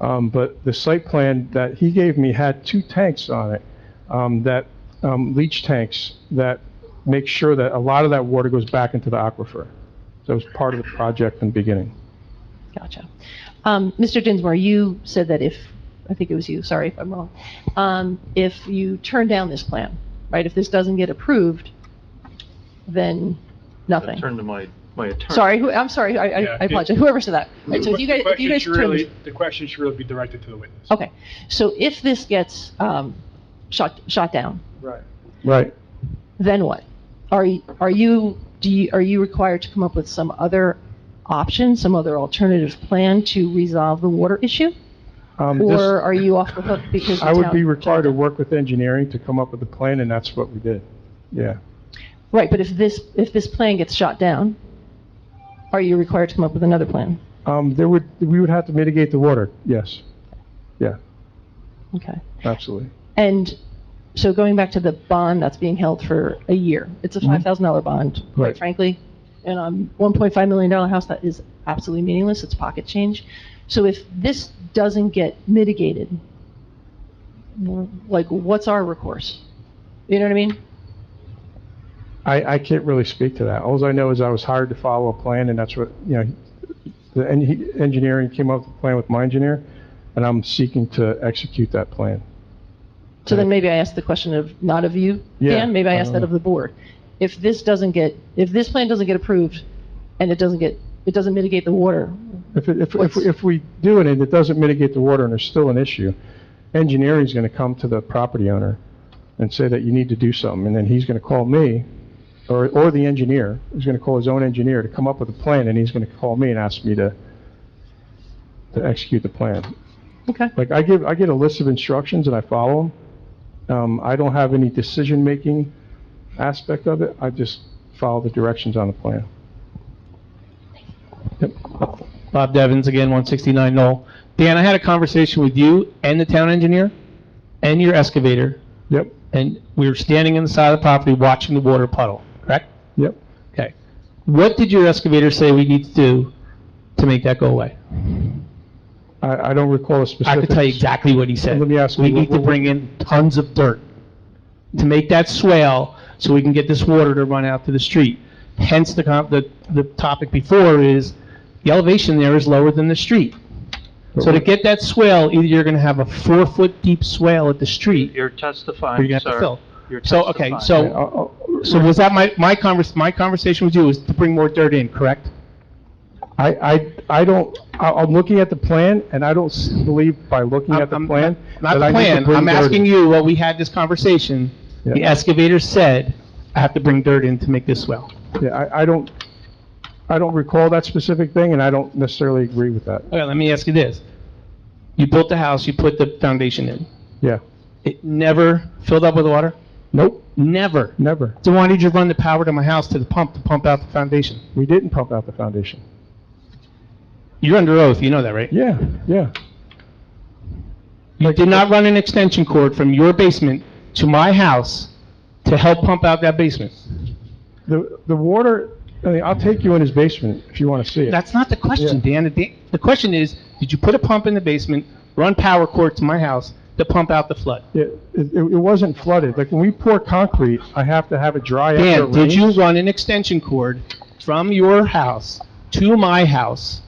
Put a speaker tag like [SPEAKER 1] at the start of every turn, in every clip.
[SPEAKER 1] Um, But the site plan that he gave me had two tanks on it, um, that, um, leach tanks that make sure that a lot of that water goes back into the aquifer. So it was part of the project in the beginning.
[SPEAKER 2] Gotcha. Um, Mr. Dinsmore, you said that if, I think it was you, sorry if I'm wrong, um, if you turn down this plan, right, if this doesn't get approved, then nothing.
[SPEAKER 3] Turn to my, my attorney.
[SPEAKER 2] Sorry, who, I'm sorry, I- I
[SPEAKER 4] Yeah,
[SPEAKER 2] I
[SPEAKER 4] it-
[SPEAKER 2] apologize, whoever said that. Right, So if you guys, if you
[SPEAKER 4] The question
[SPEAKER 2] guys
[SPEAKER 4] should
[SPEAKER 2] turn,
[SPEAKER 4] really-
[SPEAKER 2] this-
[SPEAKER 4] The question should really be directed to the witness.
[SPEAKER 2] okay, so if this gets um, shot, shot down,
[SPEAKER 4] Right.
[SPEAKER 1] Right.
[SPEAKER 2] then what? Are, y- are you, do you, are you required to come up with some other option, some other alternative plan to resolve the water issue?
[SPEAKER 1] Um, this-
[SPEAKER 2] Or are you off the hook because the
[SPEAKER 1] I would be
[SPEAKER 2] town-
[SPEAKER 1] required to work with engineering to come up with a plan, and that's what we did. Yeah.
[SPEAKER 2] Right, but if this, if this plan gets shot down, are you required to come up with another plan?
[SPEAKER 1] Um, There would, we would have to mitigate the water, yes. Yeah,
[SPEAKER 2] Okay.
[SPEAKER 1] absolutely.
[SPEAKER 2] And so going back to the bond that's being held for a year, it's a
[SPEAKER 1] Mhm.
[SPEAKER 2] $5,000 bond, quite
[SPEAKER 1] Right.
[SPEAKER 2] frankly. And on $1.5 million house, that is absolutely meaningless, it's pocket change. So if this doesn't get mitigated, w- like, what's our recourse? You know what I mean?
[SPEAKER 1] I, I can't really speak to that. Alls I know is I was hired to follow a plan, and that's what, you know, the en- he- engineering came up with a plan with my engineer, and I'm seeking to execute that plan.
[SPEAKER 2] So then
[SPEAKER 1] Right.
[SPEAKER 2] maybe I ask the question of, not of you,
[SPEAKER 1] Yeah,
[SPEAKER 2] Dan, maybe I
[SPEAKER 1] I
[SPEAKER 2] ask
[SPEAKER 1] don't
[SPEAKER 2] that
[SPEAKER 1] know.
[SPEAKER 2] of the board. If this doesn't get, if this plan doesn't get approved and it doesn't get, it doesn't mitigate the water,
[SPEAKER 1] If, it- if, if,
[SPEAKER 2] What's-
[SPEAKER 1] if we do it and it doesn't mitigate the water and there's still an issue, engineering's gonna come to the property owner and say that you need to do something, and then he's gonna call me, or, or the engineer, he's gonna call his own engineer to come up with a plan, and he's gonna call me and ask me to, to execute the plan.
[SPEAKER 2] okay,
[SPEAKER 1] Like, I give, I get a list of instructions and I follow them. Um, I don't have any decision-making aspect of it, I just follow the directions on the plan.
[SPEAKER 5] Bob Devens, again, 169 Knoll. Dan, I had a conversation with you and the town engineer and your excavator,
[SPEAKER 1] Yep,
[SPEAKER 5] and we were standing on the side of the property watching the water puddle, correct?
[SPEAKER 1] yep.
[SPEAKER 5] Okay. What did your excavator say we need to do to make that go away?
[SPEAKER 1] I, I don't recall a specific.
[SPEAKER 5] I could tell you exactly what he said.
[SPEAKER 1] Let me ask
[SPEAKER 5] We
[SPEAKER 1] you,
[SPEAKER 5] need to
[SPEAKER 1] what-
[SPEAKER 5] bring in tons of dirt to make that swale so we can get this water to run out to the street. Hence, the, com- the, the topic before is, the elevation there is lower than the street. So to get that swale, either you're gonna have a four-foot deep swale at the street,
[SPEAKER 3] You're
[SPEAKER 5] or you're
[SPEAKER 3] testifying,
[SPEAKER 5] gonna have to
[SPEAKER 3] sir.
[SPEAKER 5] fill.
[SPEAKER 3] You're
[SPEAKER 5] So, okay,
[SPEAKER 3] testifying.
[SPEAKER 5] so-
[SPEAKER 1] Yeah, I'll- I'll-
[SPEAKER 5] So was that my, my convers, my conversation with you was to bring more dirt in, correct?
[SPEAKER 1] I, I, I don't, I- I'm looking at the plan, and I don't s- believe by looking at the
[SPEAKER 5] I'm- I'm-
[SPEAKER 1] plan.
[SPEAKER 5] Not
[SPEAKER 1] that I
[SPEAKER 5] the
[SPEAKER 1] need to
[SPEAKER 5] plan,
[SPEAKER 1] bring
[SPEAKER 5] I'm
[SPEAKER 1] dirt
[SPEAKER 5] asking
[SPEAKER 1] in.
[SPEAKER 5] you, what we had this conversation, the
[SPEAKER 1] Yeah.
[SPEAKER 5] excavator said, I have to bring dirt in to make this swale.
[SPEAKER 1] Yeah, I, I don't, I don't recall that specific thing, and I don't necessarily agree with that.
[SPEAKER 5] Okay, let me ask you this. You built the house, you put the foundation in.
[SPEAKER 1] Yeah.
[SPEAKER 5] It never filled up with water?
[SPEAKER 1] Nope,
[SPEAKER 5] Never.
[SPEAKER 1] never.
[SPEAKER 5] So why did you run the power to my house to the pump to pump out the foundation?
[SPEAKER 1] We didn't pump out the foundation.
[SPEAKER 5] You're under oath, you know that, right?
[SPEAKER 1] Yeah, yeah.
[SPEAKER 5] You did not run an extension cord from your basement to my house to help pump out that basement.
[SPEAKER 1] The, the water, I mean, I'll take you in his basement if you want to see it.
[SPEAKER 5] That's not the question, Dan. The da- The question is, did you put a pump in the basement, run power cord to my house to pump out the flood?
[SPEAKER 1] Yeah, It, it it wasn't flooded. Like, when we pour concrete, I have to have it dry after it
[SPEAKER 5] Dan, did you
[SPEAKER 1] rains.
[SPEAKER 5] run an extension cord from your house to my house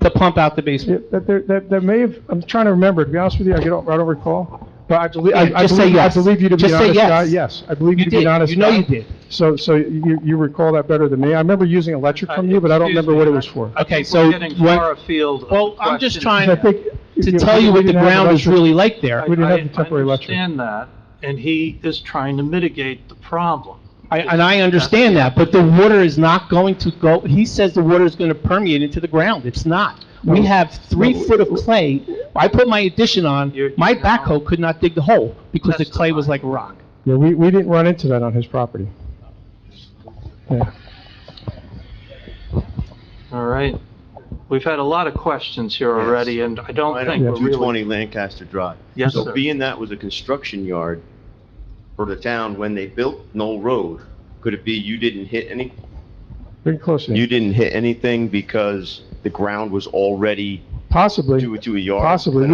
[SPEAKER 5] to pump out the
[SPEAKER 1] Yeah,
[SPEAKER 5] basement?
[SPEAKER 1] That, there- that, that may have, I'm trying to remember, to be honest with you, I don't, I don't recall, but I believe, I
[SPEAKER 5] Yeah,
[SPEAKER 1] I
[SPEAKER 5] just say
[SPEAKER 1] believe, I
[SPEAKER 5] yes.
[SPEAKER 1] believe you to be
[SPEAKER 5] Just
[SPEAKER 1] an
[SPEAKER 5] say
[SPEAKER 1] honest
[SPEAKER 5] yes.
[SPEAKER 1] guy, yes, I believe you
[SPEAKER 5] You
[SPEAKER 1] to be
[SPEAKER 5] did,
[SPEAKER 1] an honest
[SPEAKER 5] you know
[SPEAKER 1] guy.
[SPEAKER 5] you did.
[SPEAKER 1] So, so you, you recall that better than me, I remember using electric
[SPEAKER 3] Uh,
[SPEAKER 1] from you, but I don't
[SPEAKER 3] excuse
[SPEAKER 1] remember
[SPEAKER 3] me,
[SPEAKER 1] what it
[SPEAKER 3] I-
[SPEAKER 1] was for.
[SPEAKER 3] I
[SPEAKER 5] Okay,
[SPEAKER 3] think
[SPEAKER 5] so
[SPEAKER 3] We're getting
[SPEAKER 5] when-
[SPEAKER 3] far afield of the
[SPEAKER 5] Well, I'm just
[SPEAKER 3] question.
[SPEAKER 5] trying
[SPEAKER 1] I think-
[SPEAKER 5] to tell you what the
[SPEAKER 1] didn't have
[SPEAKER 5] ground was
[SPEAKER 1] electric-
[SPEAKER 5] really like there.
[SPEAKER 3] I-
[SPEAKER 1] we didn't have
[SPEAKER 3] I-
[SPEAKER 1] the temporary lecture.
[SPEAKER 3] I understand that, and he is trying to mitigate the problem.
[SPEAKER 5] I- And I understand that, but the water is not going to go, he says the water is going to permeate into the ground. It's not. We
[SPEAKER 1] No.
[SPEAKER 5] have three
[SPEAKER 1] No.
[SPEAKER 5] foot of clay. I put my addition on,
[SPEAKER 3] You're-
[SPEAKER 5] my
[SPEAKER 3] you're not-
[SPEAKER 5] backhoe could not dig the hole because the clay was
[SPEAKER 3] Testify.
[SPEAKER 5] like rock.
[SPEAKER 1] Yeah, we, we didn't run into that on his property. Yeah.
[SPEAKER 3] All right. We've had a lot of questions here
[SPEAKER 6] Yes.
[SPEAKER 3] already, and I don't
[SPEAKER 6] Mine
[SPEAKER 3] think
[SPEAKER 6] are
[SPEAKER 3] we're really.
[SPEAKER 6] 220 Lancaster Drive.
[SPEAKER 3] Yes,
[SPEAKER 6] So
[SPEAKER 3] sir.
[SPEAKER 6] being that was a construction yard for the town when they built Knoll Road, could it be you didn't hit any,
[SPEAKER 1] Pretty close, to it.
[SPEAKER 6] you didn't hit anything because the ground was already
[SPEAKER 1] possibly,
[SPEAKER 6] to, to a yard?
[SPEAKER 1] possibly.